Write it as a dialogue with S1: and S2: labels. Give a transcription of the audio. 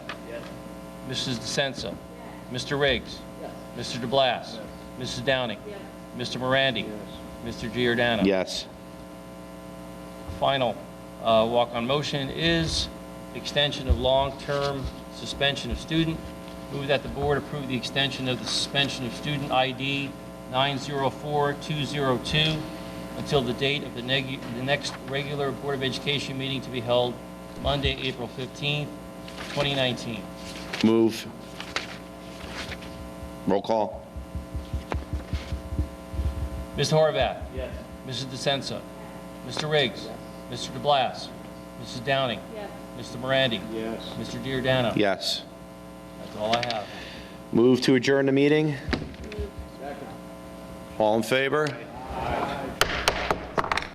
S1: Mrs. DeSenza. Mr. Riggs. Mr. DeBlas. Mrs. Downing. Mr. Morandi. Mr. Giordano.
S2: Yes.
S1: Final uh, walk-on motion is extension of long-term suspension of student. Move that the board approve the extension of the suspension of student ID 904202 until the date of the neg- the next regular Board of Education meeting to be held Monday, April 15th, 2019.
S2: Move. Roll call.
S1: Mr. Horvath? Yes. Mrs. DeSensa? Mr. Riggs? Mr. DeBlas? Mrs. Downing? Yes. Mr. Morandi? Yes. Mr. Giordano?
S2: Yes.
S1: That's all I have.
S2: Move to adjourn the meeting? All in favor?